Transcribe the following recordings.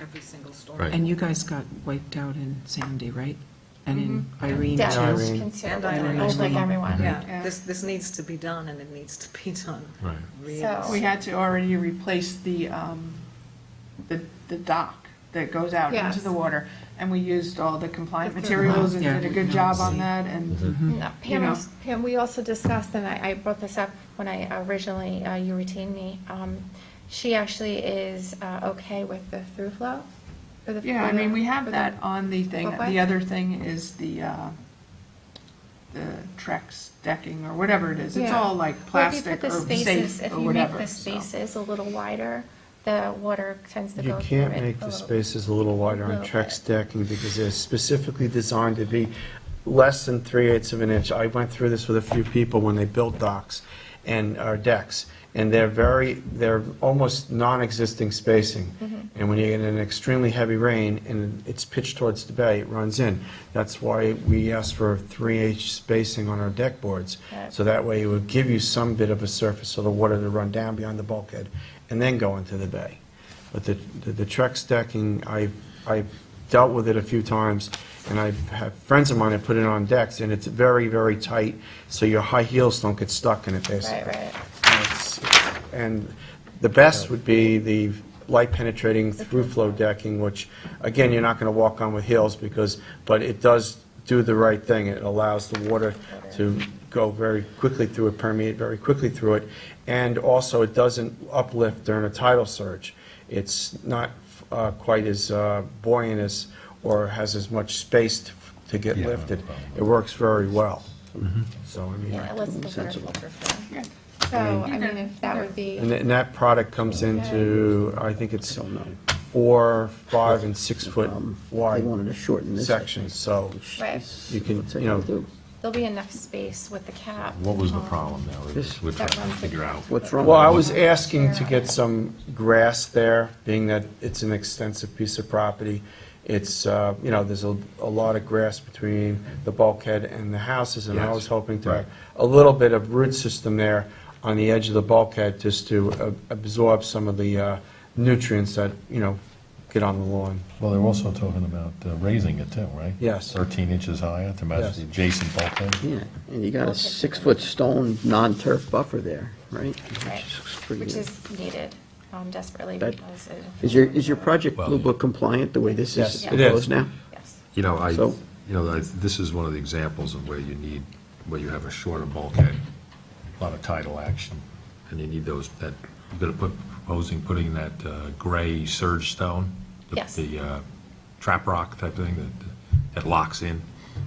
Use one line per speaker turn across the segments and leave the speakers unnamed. every single storm.
Right.
And you guys got wiped out in Sandy, right? And in Irene
Yeah, I was
too?
concerned,
And Irene.
I was like everyone.
Yeah, this, this needs to be done, and it needs to be done.
Right.
really
So-
We had to already replace the, um, the, the dock that goes out into
Yes.
the water. And we used all the compliant
The
materials and
thermal.
did a
Yeah.
good job on that and,
Mm-hmm.
No,
Mm-hmm. You
Pam,
know.
was- Pam, we also discussed, and I, I brought this up when I originally, uh, you retained me. um, She actually is uh, okay with the through flow? for the-
yeah, I
for the-
mean, we
for
have
the-
that on the thing.
What?
The other thing is the, uh, the Trex decking or whatever it is. It's
Yeah.
all
Well,
like
if you
plastic
put the
or
spaces-
safe or
If you
whatever.
make the
so.
spaces a little wider, the water tends to
You
go through it.
can't make
a
the
little-
spaces a little wider on
little
Trex
bit.
decking because they're specifically designed to be less than three eighths of an inch. I went through this with a few people when they built docks and, or decks. And they're very, they're almost non-existing
Mm-hmm.
spacing. And when you get an extremely heavy rain and it's pitched towards the bay, it runs in. That's why we ask for three H spacing on our deck boards.
Right.
So that way it would give you some bit of a surface so the water to run down beyond the bulkhead and then go into the bay. But the, the- the Trex decking, I, I've dealt with it a few times, and I've had friends of mine that put it on decks, and it's very, very tight, so your high heels don't get stuck in it, basically.
Right, right.
And it's- And the best would be the light penetrating through flow decking, which, again, you're not gonna walk on with heels because, but it does do the right thing. It allows the water to go very quickly through it, permeate very quickly through it. And also, it doesn't uplift during a tidal surge. It's not uh, quite as uh, buoyant as, or has as much space to- to get
Yeah, no
lifted.
problem. Mm-hmm.
It works very well. So, I mean.
Yeah, it lets the water filter through.
Yeah.
So, I mean, if that would be.
And th- and that product comes into, I think it's four, five, and
Um,
six-foot
They
wide
wanted to shorten this. I
sections, so
Right.
you can,
think.
you know,
There'll be enough space with the cap.
What was the
um,
problem now? We're just- We're trying
That
to
runs the
figure out.
What's wrong?
well, I was asking to get some grass there, being that it's an extensive piece of property. It's, uh, you know, there's a a lot of grass between the bulkhead and the houses, and I
Yes,
was hoping to
right.
have a little bit of root system there on the edge of the bulkhead, just to uh, absorb some of the uh, nutrients that, you know, get on the lawn.
Well, they're also talking about uh, raising it too, right?
Yes.
13 inches higher to match
Yes.
the adjacent bulkhead.
Yeah, and you got a six-foot stone non-turf buffer there, right?
Right,
pretty
which
good.
is needed um, desperately
That-
because it.
Is your, is your project
Well-
Blue Book compliant the way this
Yes,
is
it is.
proposed now?
Yes.
You know, I, you
So-
know, I- this is one of the examples of where you need, where you have a shorter bulkhead, a lot of tidal action, and you need those, that, you're gonna put, proposing putting that uh, gray surge stone? the-
Yes.
The uh, trap rock type thing that, that locks in?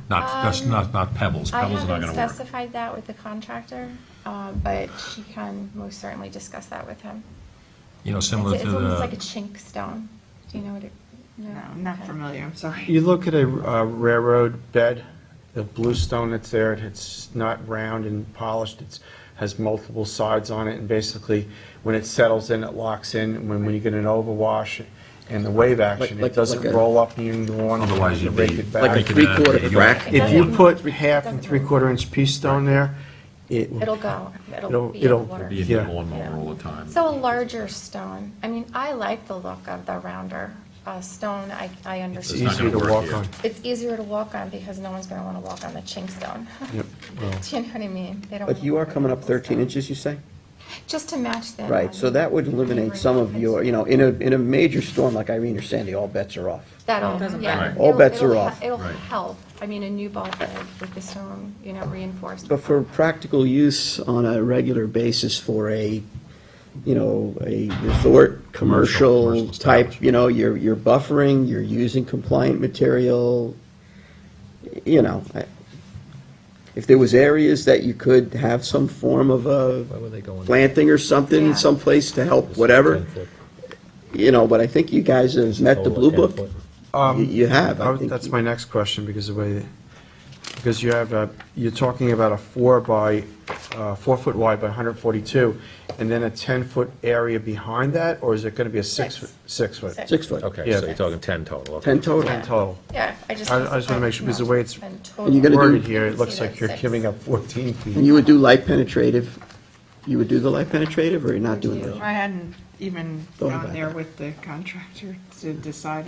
Not, that's not, not pebbles,
Um, I
pebbles are not
haven't
gonna work.
specified that with the contractor, uh, but she can most certainly discuss that with him.
You know,
It's
similar
it's
to
almost like a
the,
chink stone. Do you know what it?
No, I'm not
Okay.
familiar, I'm sorry.
You look at a uh, railroad bed, the blue stone that's there, it's not round and polished, it's, has multiple sides on it, and basically, when it settles in, it locks in, and when, when you get an overwash and the wave action, it
like-
doesn't
like a-
roll up near the lawn.
otherwise you'd be.
break it
Like a
back.
breaking it out
three-quarter
of the
rack.
yolk.
If you
doesn't-
put half and
doesn't-
three-quarter inch pea stone there, it,
It'll go. It'll
It'll-
be in the
it'll
water.
Be in the
Yeah.
lawnmower all the time.
So a larger stone. I mean, I like the look of the rounder uh, stone. I, I
it's
understand.
not
easier
gonna
to
work
walk
here.
on.
It's easier to walk on because no one's going to want to walk on the chink stone.
Yep, well-
Do you know what I mean? They don't
But
wanna
you are
walk on
coming up
the
thirteen
stone.
inches, you say?
Just to match them.
Right, so that would eliminate some of your, you know, in a, in a major storm like Irene or Sandy, all bets are off.
That'll, yeah.
matter.
All
It'll-
bets
it'll
are
he-
off.
It'll
Right.
help. I mean, a new bulkhead with the stone, you know, reinforced.
But for practical use on a regular basis for a, you know, a resort, commercial
commercial
type,
establishment.
you know, you're, you're buffering, you're using compliant material, you know, I- if there was areas that you could have some form of a planting or
Yeah.
something, someplace to help, whatever, you know, but I think you guys have met the blue book. You you have,
Um, I
I
would-
think.
That's my next question, because the way, because you have a, you're talking about a four by, uh, four foot wide by 142, and then a 10-foot area behind that, or is it going to be a six,
Six.
foot- six foot?
Six.
Six foot,
Yeah.
Okay, so you're talking 10 total, okay.
ten total.
Yeah.
Total.
Yeah, I just.
I- I just wanna make sure, because the way it's-
And
And you're gonna do-
Worded here, it looks
See that
like you're
six.
giving up 14
And
feet.
you would do light penetrative You would do the light penetrative, or you're not doing that?
I hadn't even
Thought
gone
about
there
that.
with the contractor to decide